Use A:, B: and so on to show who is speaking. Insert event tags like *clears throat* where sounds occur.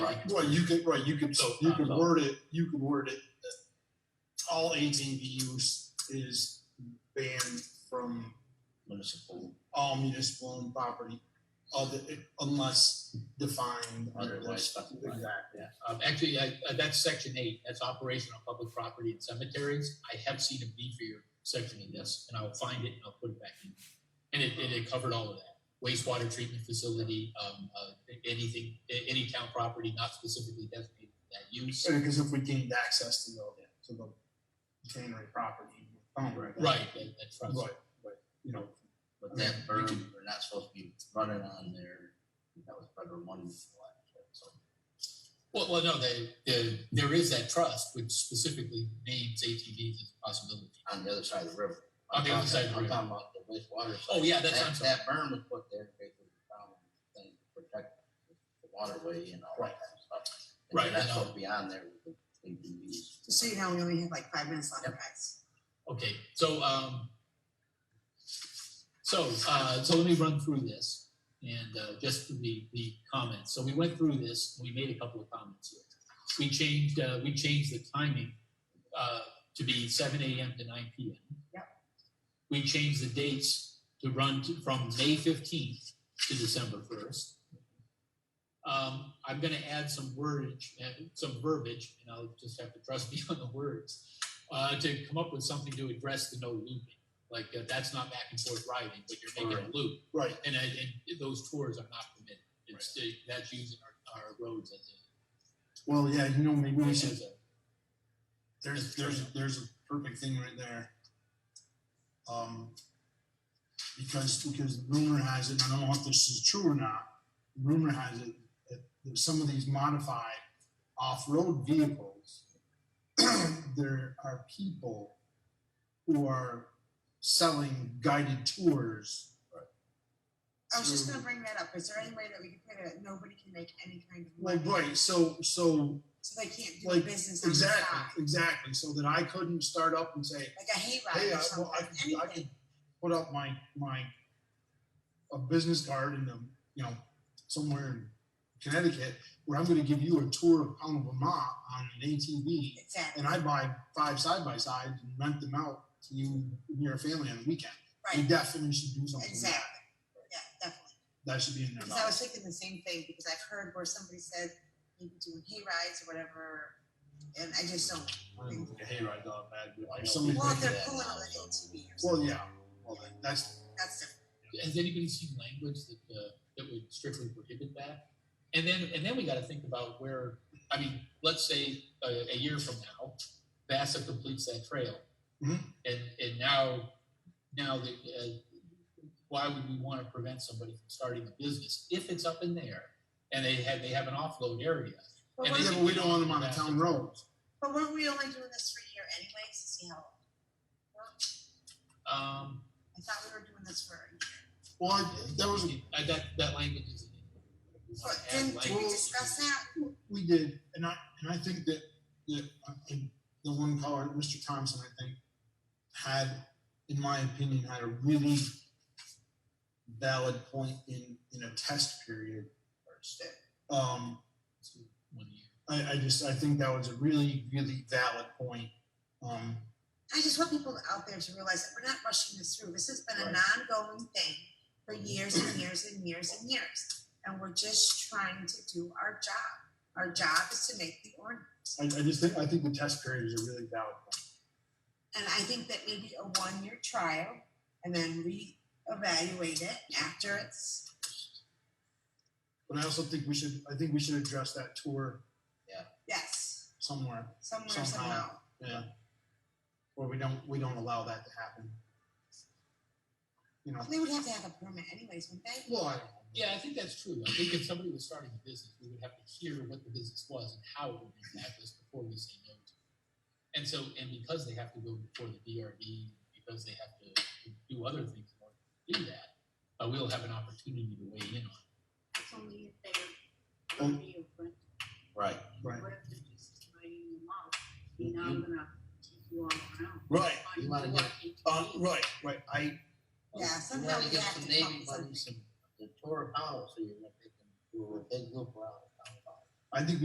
A: Right, you could, right, you could,
B: So,
A: you could
B: so-
A: word it, you could word it. that All ATV use is banned from
B: municipal,
A: all municipal owned property other, unless defined under
B: otherwise
A: this.
B: specified.
A: Exactly.
C: Um, actually, I, uh, that's section eight, that's operation on public property and cemeteries. I have seen a B for your section in this, and I'll find it and I'll put it back in. And it, and it covered all of that. Wastewater treatment facility, um, uh, anything, a- any town property not specifically designated for that use.
A: Because if we gained access to the, to the tannery property. um,
C: Right, that, that's right.
A: Right, right, you know,
B: But that berm, we're not supposed to be running on there, that was better one. So
C: Well, well, no, the, the, there is that trust which specifically names ATVs as a possibility.
B: On the other side of the river.
C: On the other side of the
B: I'm
C: river.
B: talking about the wastewater. side.
C: Oh, yeah, that's-
B: That-
C: I'm sorry.
B: That berm was put there because of the problem, thing to protect the waterway and all that kind of stuff. And
C: Right, I
B: That's
C: know.
B: supposed to be on there with the ATVs.
D: Just so you know, we only have like five minutes left,
B: Yep.
D: guys.
C: Okay, so, um, so, uh, so let me run through this and, uh, just for the, the comments. So we went through this, we made a couple of comments here. We changed, uh, we changed the timing, uh, to be seven AM to nine PM.
D: Yep.
C: We changed the dates to run to- from May fifteenth to December first. Um, I'm gonna add some wordage, uh, some verbiage, and I'll just have to trust *laughs* me on the words uh, to come up with something to address the no looping. Like uh, that's not back and forth riding, but you're making a loop,
A: right,
C: and, I, and those tours are not permitted. It's uh, that's using our, our roads as
A: well, yeah, you know, maybe
C: a,
A: we should
C: as a
A: there's there's there's a perfect thing right there. Um, because because rumor has it, and I don't know if this is true or not. Rumor has it that there's some of these modified off-road vehicles, *clears throat* there are people who are selling guided tours.
D: I was just
A: through-
D: gonna bring that up. Is there any way that we could put it, nobody can make any kind of
A: Like
D: money?
A: right, so so
D: So they can't do
A: like,
D: business on the side?
A: exactly exactly, so that I couldn't start up and say,
D: Like a
A: Hey,
D: hayride
A: I,
D: or
A: well, I
D: something,
A: could, I could
D: anything.
A: put up my, my, a business card in the, you know, somewhere in Connecticut where I'm gonna give you a tour of Pound of Vermont on an ATV
D: Exactly,
A: and I buy five side by sides and rent them out to you and your family on the weekend. We
D: right,
A: definitely should do something. like that.
D: exactly. Yeah, definitely.
A: That should be in
D: Because I
A: there.
D: was thinking the same thing, because I've heard where somebody said maybe doing hay rides or whatever, and I just don't,
A: Hayride dog,
B: I know
A: bad. Somebody,
B: people
D: well,
B: do
D: they're
B: that
D: pulling
B: now,
D: on the
B: so-
D: ATV or
A: well,
D: something,
A: yeah, well, that- that's,
D: that's different.
C: has anybody seen language that uh, that would strictly prohibit that? And then and then we got to think about where I mean, let's say uh, a, a year from now, Vasa completes that trail,
A: Mhm.
C: and and now now that uh, why would we want to prevent somebody from starting a business if it's up in there and they have they have an offload area?
D: But
C: And
D: weren't-
A: yeah, but we don't want them on the town roads.
D: But weren't we only doing this for a year anyways, to see how, it worked?
C: Um,
D: I thought we were doing this for, a year.
A: Well, I- that was,
C: I, uh, that that language is. we wanna
D: but
C: add
D: didn't, did we
C: language.
D: discuss that?
A: We did, and I, and I think that, that, uh, and the one caller, Mr. Thompson, I think, had, in my opinion, had a really valid point in, in a test period. Um,
C: One year.
A: I, I just, I think that was a really, really valid point. Um,
D: I just want people out there to realize that we're not rushing this through. This has been an ongoing thing for years and years and years and years. And we're just trying to do our job. Our job is to make the ordinance.
A: I, I just think, I think the test period is a really valid point.
D: And I think that maybe a one-year trial and then reevaluate it after it's,
A: But I also think we should, I think we should address that tour
D: yes,
A: somewhere,
D: somewhere,
A: Somehow.
D: somehow.
A: yeah. Where we don't, we don't allow that to happen. You know,
D: They would have to have a permit anyways, wouldn't they?
A: well, I don't know.
C: Yeah, I think that's true. I think if somebody was starting a business, we would have to hear what the business was and how it would impact us before we say no to it. And so, and because they have to go before the DRB, because they have to do other things in order to do that, uh, we'll have an opportunity to weigh in on. it.
E: It's only if they're
A: Um,
E: worthy of rent,
B: Right.
A: Right.
E: what if they're just writing them out, you know, I'm gonna take you all around.
A: Right.
E: Find
B: You wanna
E: you
B: get-
E: all
C: Um,
A: Uh,
E: ATVs.
A: right, right. I
D: Yeah,
B: You
D: somehow
B: wanna
D: we
B: get
D: have
B: some
D: to come
B: Navy
D: up with
B: buddies, some- The tour of Powell, so you